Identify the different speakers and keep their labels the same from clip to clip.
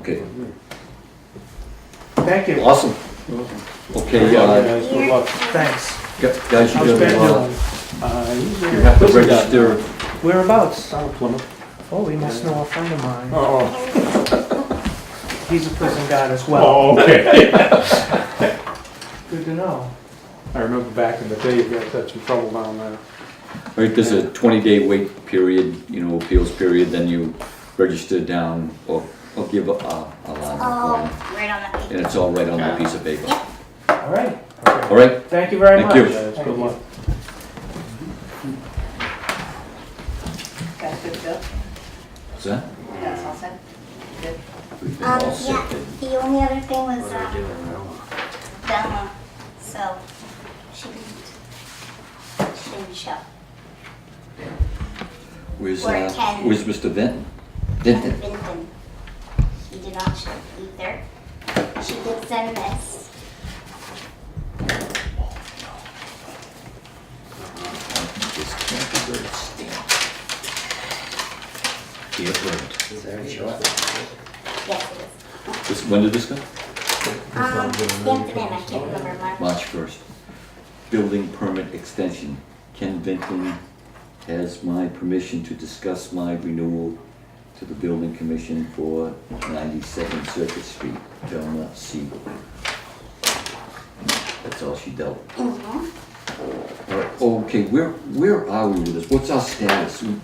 Speaker 1: Okay,
Speaker 2: Thank you.
Speaker 1: awesome. Okay, uh,
Speaker 2: Guys, Good luck. Thanks.
Speaker 1: gu- guys, you
Speaker 2: How's Ben
Speaker 1: gotta,
Speaker 2: doing? Uh, he's
Speaker 1: uh, you
Speaker 2: there.
Speaker 1: have to
Speaker 2: Where's he at?
Speaker 1: register.
Speaker 2: Whereabouts?
Speaker 3: Plymouth.
Speaker 2: Oh, he must know a friend of mine.
Speaker 3: Oh,
Speaker 2: He's a prison guard as well.
Speaker 3: oh, okay.
Speaker 1: Oh.
Speaker 2: Good to know.
Speaker 3: I remember back in the day, you guys had some trouble down there.
Speaker 1: Right, there's a twenty-day wait period, you know, appeals period, then you register down or, or give a, a alarm.
Speaker 4: Oh, right on that.
Speaker 1: And it's all right on that piece of paper.
Speaker 2: All right.
Speaker 1: All right,
Speaker 2: Thank you very
Speaker 1: Thank
Speaker 2: much.
Speaker 1: you.
Speaker 3: Guys, good luck.
Speaker 5: That's good, Bill.
Speaker 1: is that?
Speaker 5: That's all set. Good.
Speaker 1: We've been
Speaker 4: Um,
Speaker 1: all set.
Speaker 4: yeah, the only other thing was, um, Velma, so she didn't, she didn't show.
Speaker 1: Where's,
Speaker 4: We're
Speaker 1: uh,
Speaker 4: ten.
Speaker 1: where's Mr. Vinton?
Speaker 4: Dr.
Speaker 1: Vinton?
Speaker 4: Vinton, she did not show either. She did send this.
Speaker 1: This can't be very stamped. Dear friend.
Speaker 4: Yes, it is.
Speaker 1: This, when did this go?
Speaker 4: Um, stamped it in, I can't remember much.
Speaker 1: March first. Building permit extension. Ken Vinton has my permission to discuss my renewal to the building commission for ninety-second Circuit Street, Velma Siegel. That's all she dealt. with.
Speaker 4: Mm-hmm.
Speaker 1: All right, Okay, where, where are we with this? What's our status? We-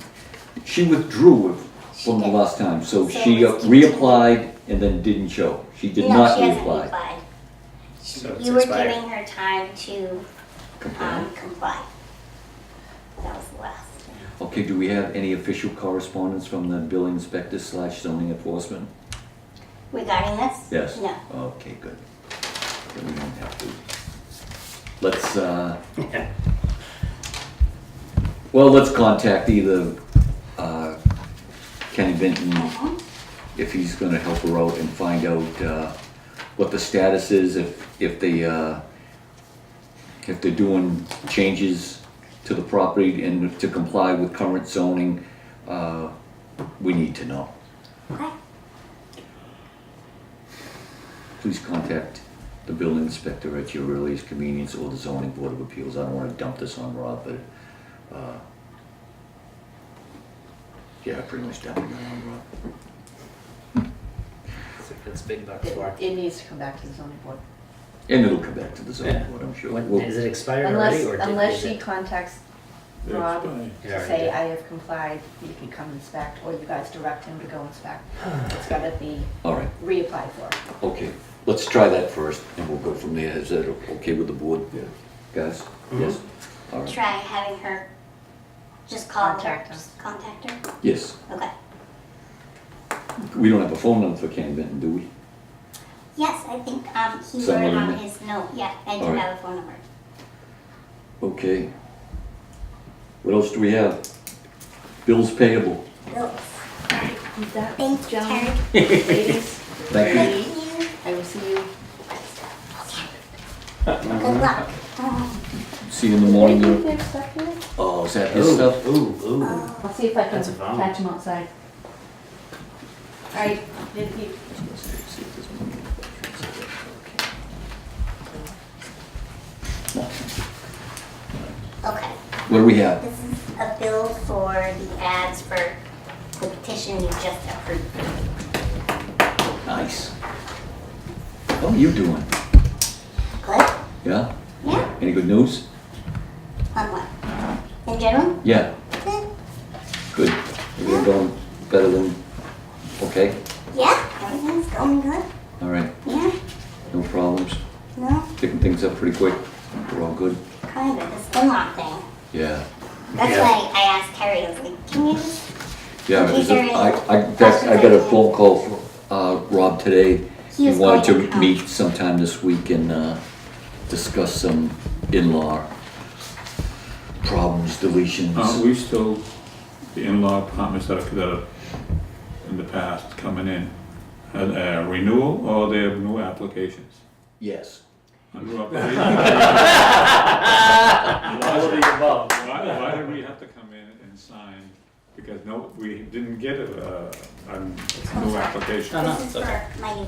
Speaker 1: She withdrew from the last time, so
Speaker 4: So
Speaker 1: she uh,
Speaker 4: it's-
Speaker 1: reapplied and then didn't show. She did
Speaker 4: No,
Speaker 1: not
Speaker 4: she hasn't
Speaker 1: reapply.
Speaker 4: replied. She-
Speaker 6: So it's
Speaker 4: You were
Speaker 6: expired.
Speaker 4: giving her time to,
Speaker 1: Comply.
Speaker 4: um, comply. That was the last.
Speaker 1: Okay, do we have any official correspondence from the building inspector slash zoning enforcement?
Speaker 4: Regarding this?
Speaker 1: Yes?
Speaker 4: No.
Speaker 1: Okay, good. Then we don't have to. Let's, uh, well, let's contact either, uh, Kenny Vinton,
Speaker 4: Mhm.
Speaker 1: if he's gonna help her out and find out, uh, what the status is, if, if they, uh, if they're doing changes to the property and to comply with current zoning, uh, we need to know.
Speaker 4: Okay.
Speaker 1: Please contact the building inspector at your earliest convenience or the zoning board of appeals. I don't wanna dump this on Rob, but, uh, yeah, I pretty much dumping it on Rob.
Speaker 6: It's big bucks
Speaker 5: It,
Speaker 6: for.
Speaker 5: it needs to come back to the zoning board.
Speaker 1: And it'll come back to the zoning
Speaker 6: Yeah.
Speaker 1: board, I'm sure.
Speaker 6: When,
Speaker 1: We'll-
Speaker 6: is it expired
Speaker 5: Unless,
Speaker 6: already or? did-
Speaker 5: unless
Speaker 6: is
Speaker 5: she
Speaker 6: it-
Speaker 5: contacts Rob
Speaker 6: It
Speaker 5: to
Speaker 6: already
Speaker 5: say,
Speaker 6: did.
Speaker 5: I have complied, you can come inspect, or you guys direct him to go inspect. It's gotta be
Speaker 1: All right,
Speaker 5: reapplied for.
Speaker 1: okay, let's try that first, and we'll go from there. Is that okay with the board? Yeah. Guys? Yes? All right,
Speaker 4: Try having her just call
Speaker 5: Contact
Speaker 4: her.
Speaker 5: her.
Speaker 4: Just contact her.
Speaker 1: yes.
Speaker 4: Okay.
Speaker 1: We don't have a phone number for Ken Benton, do we?
Speaker 4: Yes, I think um, he
Speaker 1: Send
Speaker 4: wrote
Speaker 1: one in
Speaker 4: on
Speaker 1: there.
Speaker 4: his note. Yeah, I do
Speaker 1: All right.
Speaker 4: have a phone number.
Speaker 1: Okay. What else do we have? Bills payable.
Speaker 4: Bill,
Speaker 5: Is that
Speaker 4: Thank you,
Speaker 5: Joan?
Speaker 4: Karen.
Speaker 5: Ladies,
Speaker 1: Thank you.
Speaker 4: Thank you.
Speaker 5: I will see you.
Speaker 4: Good luck. Um,
Speaker 1: See you in the morning.
Speaker 5: Maybe
Speaker 1: Lou.
Speaker 5: they're stuck in it.
Speaker 1: Oh, is that his
Speaker 6: Ooh,
Speaker 1: stuff?
Speaker 6: ooh, ooh.
Speaker 5: I'll see if I can
Speaker 6: That's a problem.
Speaker 5: catch him outside. All right, did you-
Speaker 4: okay.
Speaker 1: What do we have?
Speaker 4: This is a bill for the ads for the petition you just approved.
Speaker 1: Nice. How are you doing?
Speaker 4: Good?
Speaker 1: Yeah?
Speaker 4: Yeah.
Speaker 1: Any good news?
Speaker 4: On what? In general?
Speaker 1: Yeah,
Speaker 4: Good.
Speaker 1: good. You're going better than, okay?
Speaker 4: Yeah, everything's going good.
Speaker 1: All right,
Speaker 4: Yeah.
Speaker 1: no problems.
Speaker 4: No,
Speaker 1: Picking things up pretty quick. We're all good.
Speaker 4: kind of. This Spinlock thing.
Speaker 1: Yeah.
Speaker 4: That's
Speaker 6: Yeah.
Speaker 4: why I asked Terry, I was like, can you just
Speaker 1: Yeah,
Speaker 4: Okay,
Speaker 1: is it-
Speaker 4: very-
Speaker 1: I, I, in fact, I got a phone call from, uh, Rob today.
Speaker 4: He
Speaker 1: He
Speaker 4: was
Speaker 1: wanted
Speaker 4: going to
Speaker 1: to
Speaker 4: come.
Speaker 1: meet sometime this week and, uh, discuss some in-law problems,
Speaker 7: Aren't
Speaker 1: deletions.
Speaker 7: Uh, we still, the in-law apartments that are, that are in the past coming in, uh, uh, renewal or they have new applications?
Speaker 1: Yes.
Speaker 7: Under application? Why
Speaker 3: All of the above.
Speaker 7: why do we have to come in and sign the because no, we didn't get a, a, a new
Speaker 4: sorry.
Speaker 7: application.
Speaker 6: No, no,
Speaker 4: This is
Speaker 6: it's okay.
Speaker 4: for my